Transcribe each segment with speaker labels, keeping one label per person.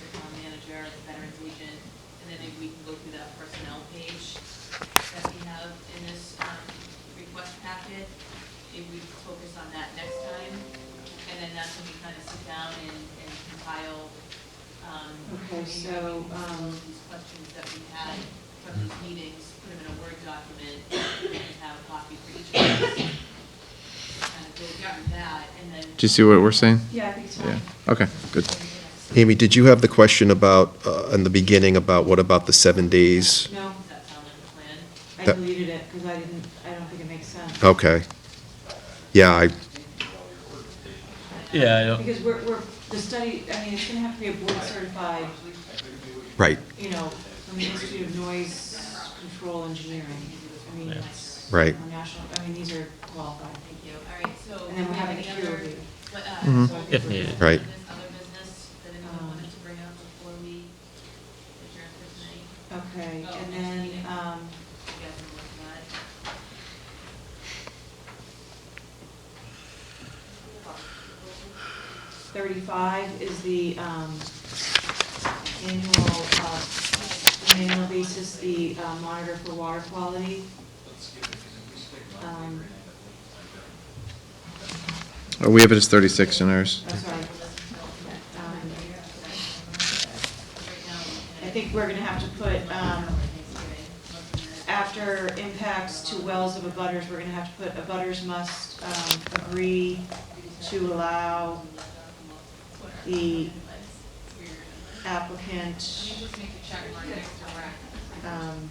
Speaker 1: uh, um, that's when we kind of sit down and and compile, um,
Speaker 2: Okay, so, um,
Speaker 1: these questions that we had from these meetings, put them in a Word document, and have a copy for each of us. Kind of go through that, and then.
Speaker 3: Do you see what we're saying?
Speaker 2: Yeah, I think so.
Speaker 3: Yeah, okay, good.
Speaker 4: Amy, did you have the question about, uh, in the beginning, about what about the seven days?
Speaker 2: No,
Speaker 1: Does that sound like a plan?
Speaker 2: I
Speaker 4: That-
Speaker 2: deleted it because I didn't, I don't think it makes sense.
Speaker 4: Okay. Yeah, I,
Speaker 5: Yeah, I don't,
Speaker 2: Because we're, we're, the study, I mean, it's gonna have to be a board certified,
Speaker 4: right,
Speaker 2: you know, from the Institute of Noise Control Engineering. I mean, it's.
Speaker 4: Right.
Speaker 2: a National, I mean, these are qualified.
Speaker 1: Thank you, all right, so.
Speaker 2: And then we're having a
Speaker 1: any
Speaker 2: peer
Speaker 1: other-
Speaker 2: review.
Speaker 1: what, uh,
Speaker 4: Mhm.
Speaker 1: so
Speaker 5: Mm-hmm. If needed.
Speaker 4: Right.
Speaker 1: business, Other business that anyone wanted to bring up before we adjourn for tonight? Oh,
Speaker 2: Okay, and
Speaker 1: next
Speaker 2: then,
Speaker 1: meeting.
Speaker 2: um,
Speaker 1: You guys are looking at it.
Speaker 2: thirty-five is the, um, annual, uh, on an annual basis, the uh, monitor for water quality. Um,
Speaker 3: Uh, We have it as 36 in ours.
Speaker 2: I'm sorry. Um,
Speaker 1: Right now, we're looking
Speaker 2: I
Speaker 1: at
Speaker 2: think we're gonna have to put, um,
Speaker 1: Thanksgiving.
Speaker 2: after impacts to wells of abutters, we're gonna have to put abutters must um, agree to allow the
Speaker 1: You
Speaker 2: applicant
Speaker 1: just need to check mark next to rack.
Speaker 2: um,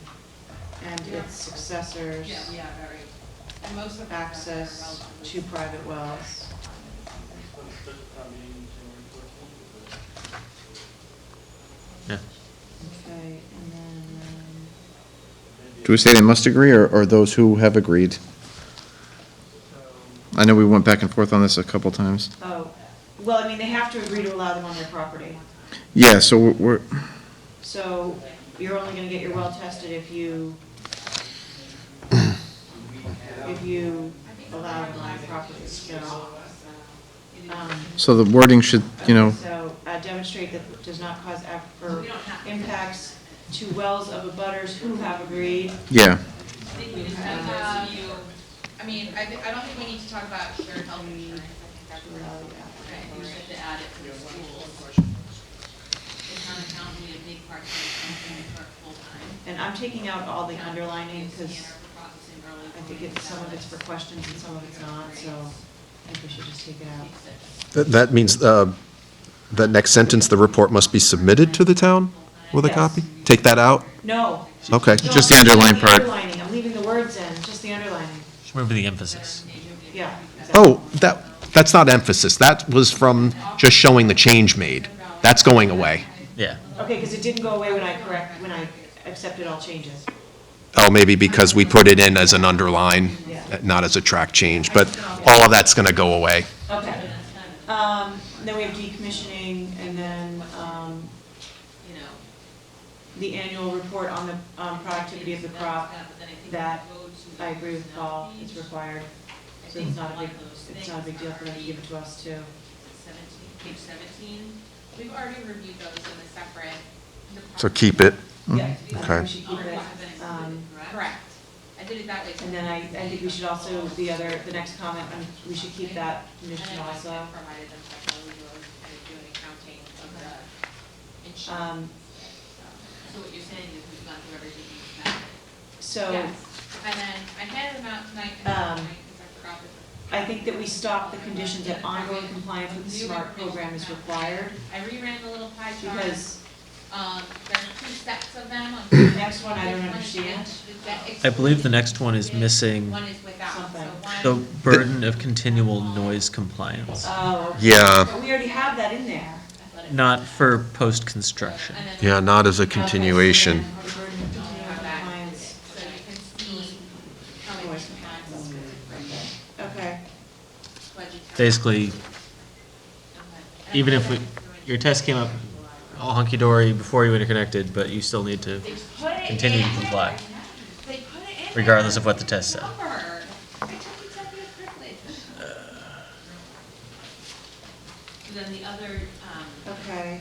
Speaker 2: and its successors
Speaker 1: Yeah, all right. And most of.
Speaker 2: access to private wells.
Speaker 5: yeah.
Speaker 2: Okay, and then, um,
Speaker 3: Do we say they must agree, or, or those who have agreed? I know we went back and forth on this a couple times.
Speaker 2: oh, well, I mean, they have to agree to allow them on their property.
Speaker 3: Yeah, so we're- we're,
Speaker 2: So you're only gonna get your well tested if you, if you allow it on your property, so. um,
Speaker 3: so the wording should, you know,
Speaker 2: Okay, So uh, demonstrate that does not cause af- or impacts to wells of abutters who have agreed.
Speaker 3: yeah,
Speaker 1: I think we just
Speaker 2: have-
Speaker 1: have those of you, uh, I mean, I, thi- I don't think we need to talk about shared health insurance. I think that's- Okay, we should have to add it to the schools. It's not accounting a big part of the for full-time.
Speaker 2: And I'm taking out all the underlining
Speaker 1: Scanner
Speaker 2: because
Speaker 1: for processing early
Speaker 2: I think it's, some of it's for questions and some of it's not, so I think we should just take it out.
Speaker 4: That- that means, uh, the next sentence, the report must be submitted to the town with a
Speaker 2: Yes.
Speaker 4: copy? Take that out?
Speaker 2: No.
Speaker 4: Okay.
Speaker 2: No,
Speaker 3: Just the
Speaker 2: I'm leaving
Speaker 3: underline part.
Speaker 2: underlining. I'm leaving the words in, just the underlining,
Speaker 5: Remember the emphasis.
Speaker 2: yeah. exactly.
Speaker 4: Oh, that, that's not emphasis, that was from just showing the change made. That's going away.
Speaker 5: Yeah.
Speaker 2: Okay, because it didn't go away when I correct, when I accepted all changes.
Speaker 4: Oh, maybe because we put it in as an underline,
Speaker 2: Yeah.
Speaker 4: not as a track change, but all of that's going to go away.
Speaker 2: Okay. Um, Then we have decommissioning and then um,
Speaker 1: You know.
Speaker 2: the annual report on the um, productivity of the crop. that I agree with Paul, it's required, so it's not a big, it's not a big deal for them to give it to us too.
Speaker 1: Seventeen, page seventeen, we've already reviewed those in a separate.
Speaker 4: So keep it.
Speaker 2: Yeah, I think
Speaker 4: Okay.
Speaker 2: we should keep it. Um,
Speaker 1: Correct, I did it that way.
Speaker 2: And then I, I think we should also, the other, the next comment, um, we should keep that condition
Speaker 1: And I
Speaker 2: also.
Speaker 1: provided them technically, we were kind of doing accounting of the insurance.
Speaker 2: Um,
Speaker 1: So what you're saying is we've gone through everything we've got.
Speaker 2: So
Speaker 1: Yes, and then I handed them out tonight, and
Speaker 2: Um,
Speaker 1: tonight, because I forgot that
Speaker 2: I think that we stop the conditions that ongoing compliance with the SMART program is required,
Speaker 1: I reran the little pie chart.
Speaker 2: because
Speaker 1: Um, there are two sets of them. on-
Speaker 2: the next one I don't
Speaker 1: One is
Speaker 2: understand.
Speaker 1: with that
Speaker 5: I believe the next one is missing
Speaker 1: One is without, so
Speaker 2: Something.
Speaker 5: the
Speaker 1: one,
Speaker 5: burden of continual noise compliance,
Speaker 2: Oh. okay.
Speaker 4: Yeah.
Speaker 2: But we already have that in there.
Speaker 1: athletic,
Speaker 5: not for post-construction.
Speaker 1: and then.
Speaker 4: Yeah, not as a
Speaker 2: Okay, so
Speaker 4: continuation.
Speaker 2: then the burden of continuing compliance.
Speaker 1: So you can
Speaker 2: Mm.
Speaker 1: see how many times it's been
Speaker 2: Okay,
Speaker 1: budgeted.
Speaker 5: Basically,
Speaker 1: Okay.
Speaker 5: even if we, your test came up all hunky-dory before you interconnected, but you still need to
Speaker 1: They put it
Speaker 5: continue to
Speaker 1: in. They
Speaker 5: comply,
Speaker 1: put it in. there.
Speaker 5: regardless of what the test said.
Speaker 1: Cover. I took executive privilege. Then the other, um,
Speaker 2: okay.